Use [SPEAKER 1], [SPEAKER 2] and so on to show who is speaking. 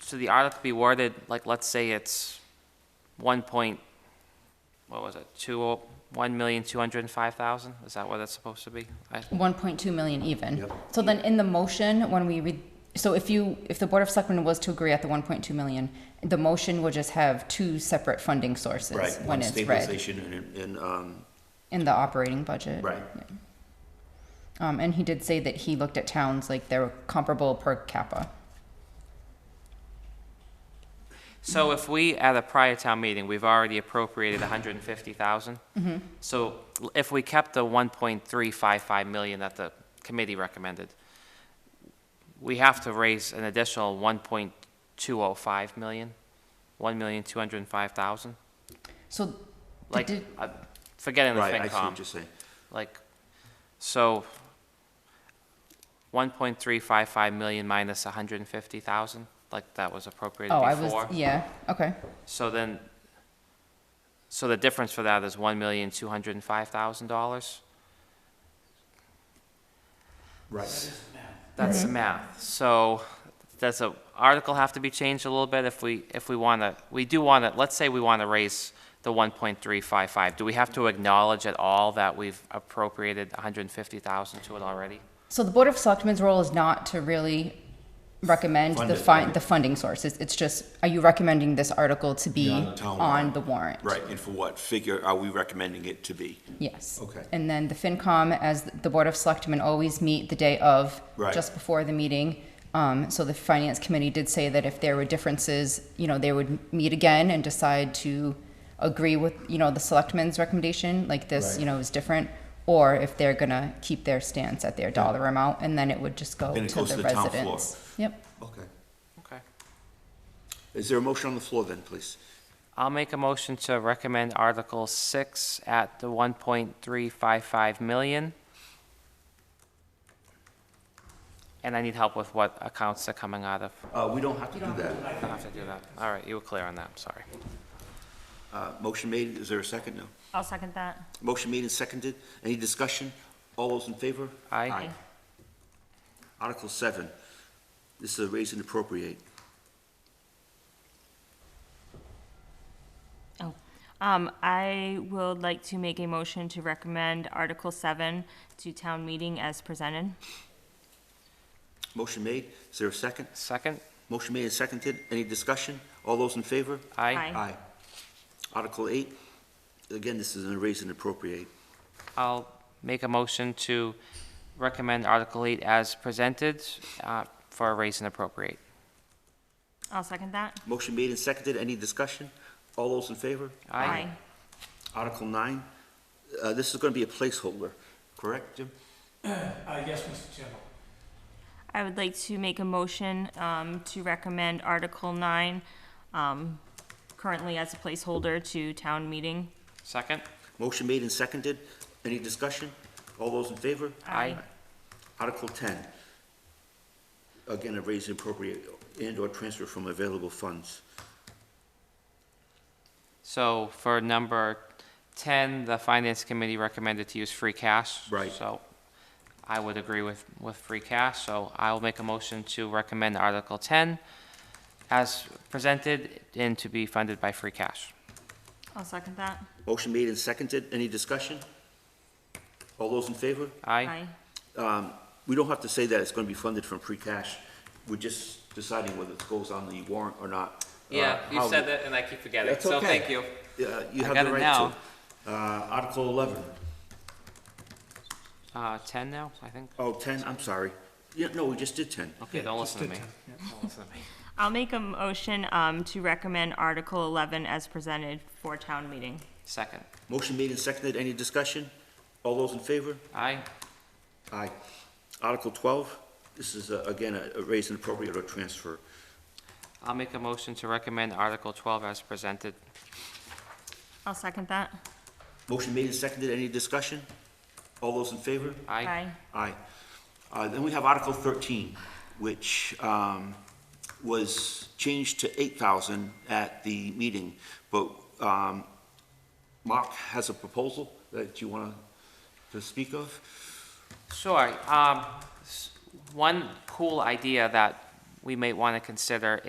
[SPEAKER 1] should the article be worded, like, let's say it's one point, what was it, two, oh- one million, two hundred and five thousand? Is that what it's supposed to be? I-
[SPEAKER 2] 1.2 million even.
[SPEAKER 3] Yep.
[SPEAKER 2] So then in the motion, when we read, so if you, if the Board of Selectmen was to agree at the 1.2 million, the motion would just have two separate funding sources
[SPEAKER 3] Right,
[SPEAKER 2] when
[SPEAKER 3] one
[SPEAKER 2] it's read
[SPEAKER 3] stabilization and, and, um,
[SPEAKER 2] in the operating budget.
[SPEAKER 3] Right.
[SPEAKER 2] Yeah. Um, and he did say that he looked at towns like they're comparable per capita.
[SPEAKER 1] So if we, at a prior town meeting, we've already appropriated hundred and fifty thousand? So l- if we kept the one point three five five million that the committee recommended, we have to raise an additional one point two oh five million, one million, two hundred and five thousand?
[SPEAKER 2] So,
[SPEAKER 1] Like,
[SPEAKER 2] did-
[SPEAKER 1] uh, forgetting the
[SPEAKER 3] right, I see
[SPEAKER 1] FinCom.
[SPEAKER 3] what you're saying.
[SPEAKER 1] Like, so, one point three five five million minus a hundred and fifty thousand, like that was appropriated
[SPEAKER 2] oh,
[SPEAKER 1] before?
[SPEAKER 2] I was, yeah, okay.
[SPEAKER 1] So then, so the difference for that is one million, two hundred and five thousand dollars?
[SPEAKER 3] Right.
[SPEAKER 1] That's
[SPEAKER 2] Mm-hmm.
[SPEAKER 1] the math. So does the article have to be changed a little bit if we, if we want to, we do want to, let's say we want to raise the one point three five five. Do we have to acknowledge at all that we've appropriated hundred and fifty thousand to it already?
[SPEAKER 2] So the Board of Selectmen's role is not to really recommend
[SPEAKER 3] Fund
[SPEAKER 2] the
[SPEAKER 3] it,
[SPEAKER 2] fi-
[SPEAKER 3] right.
[SPEAKER 2] the funding sources. It's just, are you recommending this article to be
[SPEAKER 3] Yeah, on the town
[SPEAKER 2] on the warrant?
[SPEAKER 3] Right, and for what figure are we recommending it to be?
[SPEAKER 2] Yes.
[SPEAKER 3] Okay.
[SPEAKER 2] And then the FinCom, as the Board of Selectmen always meet the day of,
[SPEAKER 3] Right.
[SPEAKER 2] just before the meeting. Um, so the Finance Committee did say that if there were differences, you know, they would meet again and decide to agree with, you know, the Selectmen's recommendation, like this,
[SPEAKER 3] Right.
[SPEAKER 2] you know, is different, or if they're gonna keep their stance at their dollar amount, and then it would just go to the
[SPEAKER 3] Then it goes
[SPEAKER 2] residents.
[SPEAKER 3] to the town floor.
[SPEAKER 2] Yep.
[SPEAKER 3] Okay.
[SPEAKER 1] Okay.
[SPEAKER 3] Is there a motion on the floor then, please?
[SPEAKER 1] I'll make a motion to recommend Article six at the one point three five five million. And I need help with what accounts are coming out of.
[SPEAKER 3] Uh, we don't have to do
[SPEAKER 1] I
[SPEAKER 3] that.
[SPEAKER 1] don't have to do that. All right, you were clear on that, I'm sorry.
[SPEAKER 3] Uh, motion made, is there a second? No.
[SPEAKER 4] I'll second that.
[SPEAKER 3] Motion made and seconded. Any discussion? All those in favor?
[SPEAKER 1] Aye.
[SPEAKER 4] Aye.
[SPEAKER 3] Article seven, this is a raise and appropriate.
[SPEAKER 4] Oh. Um, I would like to make a motion to recommend Article seven to town meeting as presented.
[SPEAKER 3] Motion made, is there a second?
[SPEAKER 1] Second?
[SPEAKER 3] Motion made and seconded. Any discussion? All those in favor?
[SPEAKER 1] Aye.
[SPEAKER 4] Aye.
[SPEAKER 3] Article eight, again, this is a raise and appropriate.
[SPEAKER 1] I'll make a motion to recommend Article eight as presented uh, for a raise and appropriate.
[SPEAKER 4] I'll second that.
[SPEAKER 3] Motion made and seconded. Any discussion? All those in favor?
[SPEAKER 1] Aye.
[SPEAKER 3] Article nine, uh, this is going to be a placeholder, correct, Jim?
[SPEAKER 5] Uh, yes, Mr. Chairman.
[SPEAKER 4] I would like to make a motion, um, to recommend Article nine, um, currently as a placeholder to town meeting.
[SPEAKER 1] Second?
[SPEAKER 3] Motion made and seconded. Any discussion? All those in favor?
[SPEAKER 1] Aye.
[SPEAKER 3] Article ten, again, a raise and appropriate and/or transfer from available funds.
[SPEAKER 1] So for number 10, the Finance Committee recommended to use free cash.
[SPEAKER 3] Right.
[SPEAKER 1] So I would agree with, with free cash, so I will make a motion to recommend Article 10 as presented and to be funded by free cash.
[SPEAKER 4] I'll second that.
[SPEAKER 3] Motion made and seconded. Any discussion? All those in favor?
[SPEAKER 1] Aye?
[SPEAKER 3] Um, We don't have to say that it's going to be funded from free cash. We're just deciding whether it goes on the warrant or not. Uh, how-
[SPEAKER 1] that, and I keep forgetting,
[SPEAKER 3] That's okay. Yeah, You
[SPEAKER 1] I
[SPEAKER 3] have
[SPEAKER 1] got
[SPEAKER 3] the
[SPEAKER 1] it
[SPEAKER 3] right
[SPEAKER 1] now.
[SPEAKER 3] to. Uh, Article eleven.
[SPEAKER 1] Uh, 10 now, I think?
[SPEAKER 3] Oh, 10, I'm sorry. Yeah, no, we just did 10.
[SPEAKER 1] Okay, don't listen to me.
[SPEAKER 4] I'll make a motion, um, to recommend Article eleven as presented for town meeting.
[SPEAKER 1] Second.
[SPEAKER 3] Motion made and seconded, any discussion? All those in favor?
[SPEAKER 1] Aye?
[SPEAKER 3] Aye. Article 12, this is, uh, again, a a raise and appropriate or transfer.
[SPEAKER 1] I'll make a motion to recommend Article 12 as presented.
[SPEAKER 4] I'll second that.
[SPEAKER 3] Motion made and seconded, any discussion? All those in favor?
[SPEAKER 1] Aye?
[SPEAKER 3] Aye. Uh, Then we have Article 13, which um, was changed to 8,000 at the meeting, but um, Mark has a proposal that you want to speak of?
[SPEAKER 1] Sure. um, s- One cool idea that we may want to consider